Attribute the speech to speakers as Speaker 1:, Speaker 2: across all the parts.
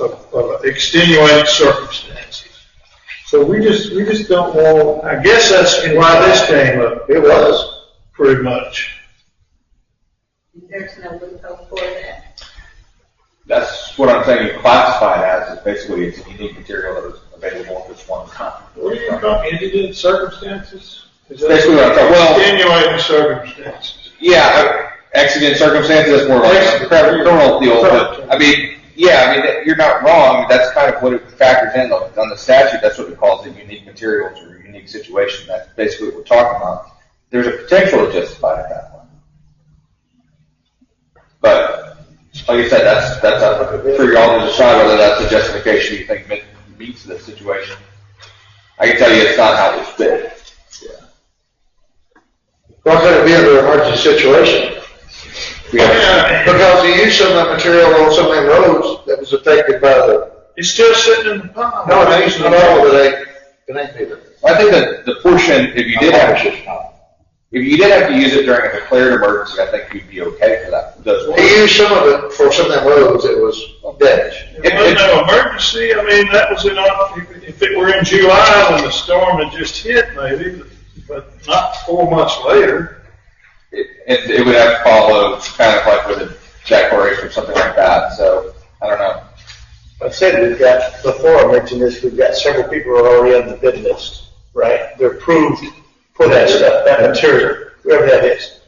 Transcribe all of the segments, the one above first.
Speaker 1: of, of extenuating circumstances. So we just, we just don't want, I guess that's why this came up. It was, pretty much.
Speaker 2: There's no loophole for that.
Speaker 3: That's what I'm saying, classified as, is basically it's a unique material that is available, which one's not.
Speaker 1: What do you call it, indigent circumstances? Is that-
Speaker 3: Basically, what I'm talking- well-
Speaker 1: Extenuating circumstances.
Speaker 3: Yeah, uh, accident circumstances, more like criminal deal, but, I mean, yeah, I mean, that- you're not wrong, that's kind of what it factors in, on on the statute, that's what it calls it, unique materials or unique situation, that's basically what we're talking about. There's a potential to justify it that way. But, like I said, that's, that's up for y'all to decide whether that's a justification you think met- meets the situation. I can tell you it's not how it's been.
Speaker 4: Why could it be under emergency situation?
Speaker 3: We have-
Speaker 4: Because the use of that material on so many roads that was affected by the,
Speaker 1: It's still sitting in the pond.
Speaker 4: no, it ain't at all, but it ain't, it ain't neither.
Speaker 3: I think that the portion, if you did have, if you did have to use it during a declared emergency, I think you'd be okay for that, those
Speaker 4: He
Speaker 3: ones.
Speaker 4: used some of it for some of them roads that was damaged.
Speaker 1: It was no emergency, I mean, that was in, if- if it were in July when the storm had just hit maybe, but not four months later.
Speaker 3: It, it, it would have to follow kind of like with a declaration or something like that, so, I don't know.
Speaker 5: I said we've got, before I mentioned this, we've got several people who are already on the bid list, right? They're approved for that stuff, that material, whoever that is.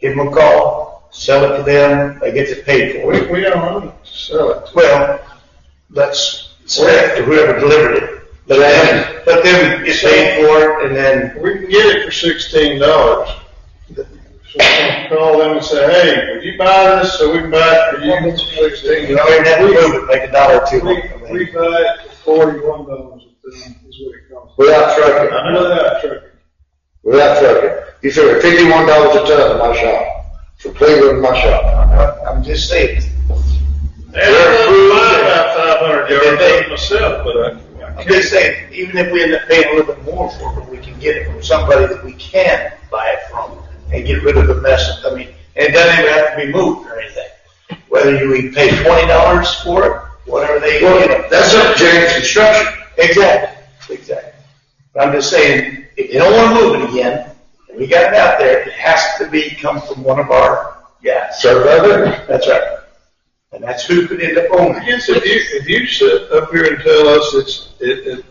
Speaker 5: Give them a call, sell it to them, they get it paid for.
Speaker 1: We, we don't own it, sell it.
Speaker 5: Well, that's, to whoever delivered it. Let them, let them get paid for it and then,
Speaker 1: We can get it for sixteen dollars. So we can call them and say, hey, would you buy this so we can buy it for you for sixteen
Speaker 5: you know,
Speaker 1: dollars?
Speaker 5: and then move it, make a dollar or two.
Speaker 1: We, we buy it for forty-one dollars a ton is what it costs.
Speaker 4: Without trucking,
Speaker 1: I know that, truck.
Speaker 4: without trucking. You figure fifty-one dollars a ton in my shop, from Cleveland to my shop.
Speaker 5: I'm just saying,
Speaker 1: And I blew mine about five hundred yards myself, but I, I
Speaker 5: I'm
Speaker 1: can't.
Speaker 5: just saying, even if we end up paying a little bit more for it, we can get it from somebody that we can buy it from and get rid of the mess. I mean, and it doesn't even have to be moved or anything. Whether you we pay twenty dollars for it, whatever they, you know,
Speaker 4: Well,
Speaker 5: that's
Speaker 4: that's up to James Construction.
Speaker 5: exactly, exactly. But I'm just saying, if you don't want to move it again, and we got it out there, it has to be come from one of our guys.
Speaker 4: Serve other,
Speaker 5: That's right. And that's who could end up owning
Speaker 1: I
Speaker 5: it.
Speaker 1: guess if you, if you sit up here and tell us it's, it, it,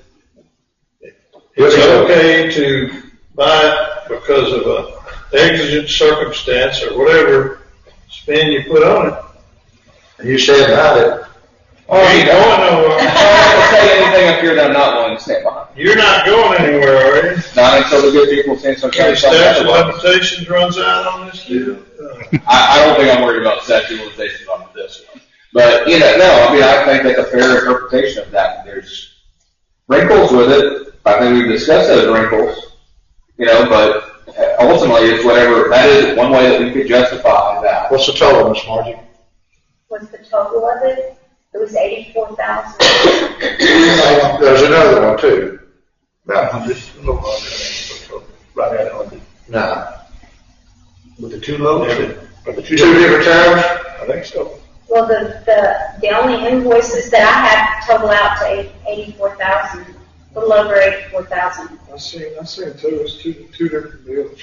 Speaker 1: it's
Speaker 4: Really?
Speaker 1: okay to buy it because of a exigent circumstance or whatever spin you put on it,
Speaker 4: and you stand behind it.
Speaker 1: you ain't going
Speaker 3: I'm
Speaker 1: nowhere.
Speaker 3: not gonna say anything up here that I'm not willing to stand behind.
Speaker 1: uh, You're not going anywhere, are you?
Speaker 3: Not until the good people stand some kind
Speaker 1: The
Speaker 3: of side
Speaker 1: statute of
Speaker 3: otherwise.
Speaker 1: limitations runs out on this deal. Uh,
Speaker 3: I, I don't think I'm worried about sexualization on this one. But, you know, no, I mean, I think that's a fair interpretation of that. There's wrinkles with it. I think we've discussed those wrinkles, you know, but ultimately it's whatever, that is one way that we could justify that.
Speaker 4: What's the total, Miss Margie?
Speaker 2: What's the total of it? It was eighty-four thousand.
Speaker 4: There's another one too.
Speaker 5: No, just a little longer. Right out on the
Speaker 4: No.
Speaker 5: With the two loads? Or the
Speaker 4: Two different times?
Speaker 5: I think so.
Speaker 2: Well, the, the, the only invoices that I have total out to eighty-four thousand, a little over eighty-four thousand.
Speaker 1: I seen, I seen two, it's two, two different deals.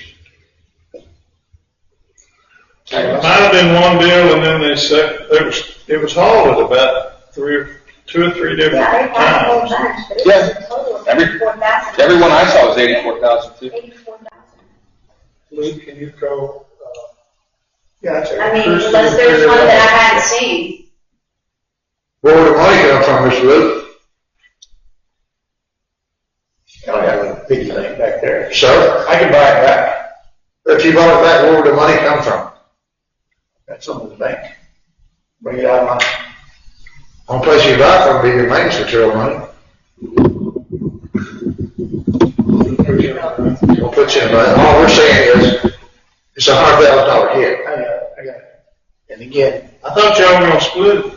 Speaker 1: Uh, Might have been one deal and then they said, it was, it was hauled at about three, or two or three different
Speaker 2: Yeah, they had a whole
Speaker 1: times.
Speaker 2: bunch, but it was a total of
Speaker 3: Every-
Speaker 2: eighty-four thousand.
Speaker 3: Everyone I saw was 84,000 too.
Speaker 2: Eighty-four thousand.
Speaker 1: Luke, can you call, uh,
Speaker 5: Yeah, that's
Speaker 2: I mean, unless there's one that I haven't seen.
Speaker 4: Where would the money come from, Mr. Luke?
Speaker 5: I don't have a piggy bank back there.
Speaker 4: Sir?
Speaker 5: I can buy it back.
Speaker 4: If you bought it back, where would the money come from?
Speaker 5: That's on the bank. Bring it out of my,
Speaker 4: One place you buy from would be your maintenance material money. We'll put you in, but all we're saying is, it's a hundred thousand dollar hit.
Speaker 5: I got it, I got it. And again,
Speaker 1: I thought y'all were gonna split it.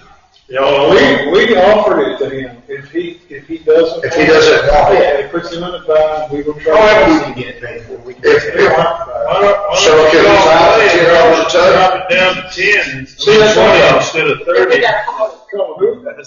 Speaker 1: Y'all, we, we offered it to him, if he, if he doesn't.
Speaker 4: If he doesn't want
Speaker 1: Oh,
Speaker 4: it.
Speaker 1: Yeah, it puts him in a bind, we
Speaker 5: Oh,
Speaker 1: will try.
Speaker 5: however we can get it paid for, we can.
Speaker 4: If,
Speaker 1: Why don't-
Speaker 4: if,
Speaker 1: why don't-
Speaker 4: So, can we drop it to ten dollars a ton?
Speaker 1: Drop it down to ten.
Speaker 4: See, that's what I'm-
Speaker 1: Instead of
Speaker 2: If we
Speaker 1: thirty.
Speaker 2: got a whole
Speaker 1: Come on, who?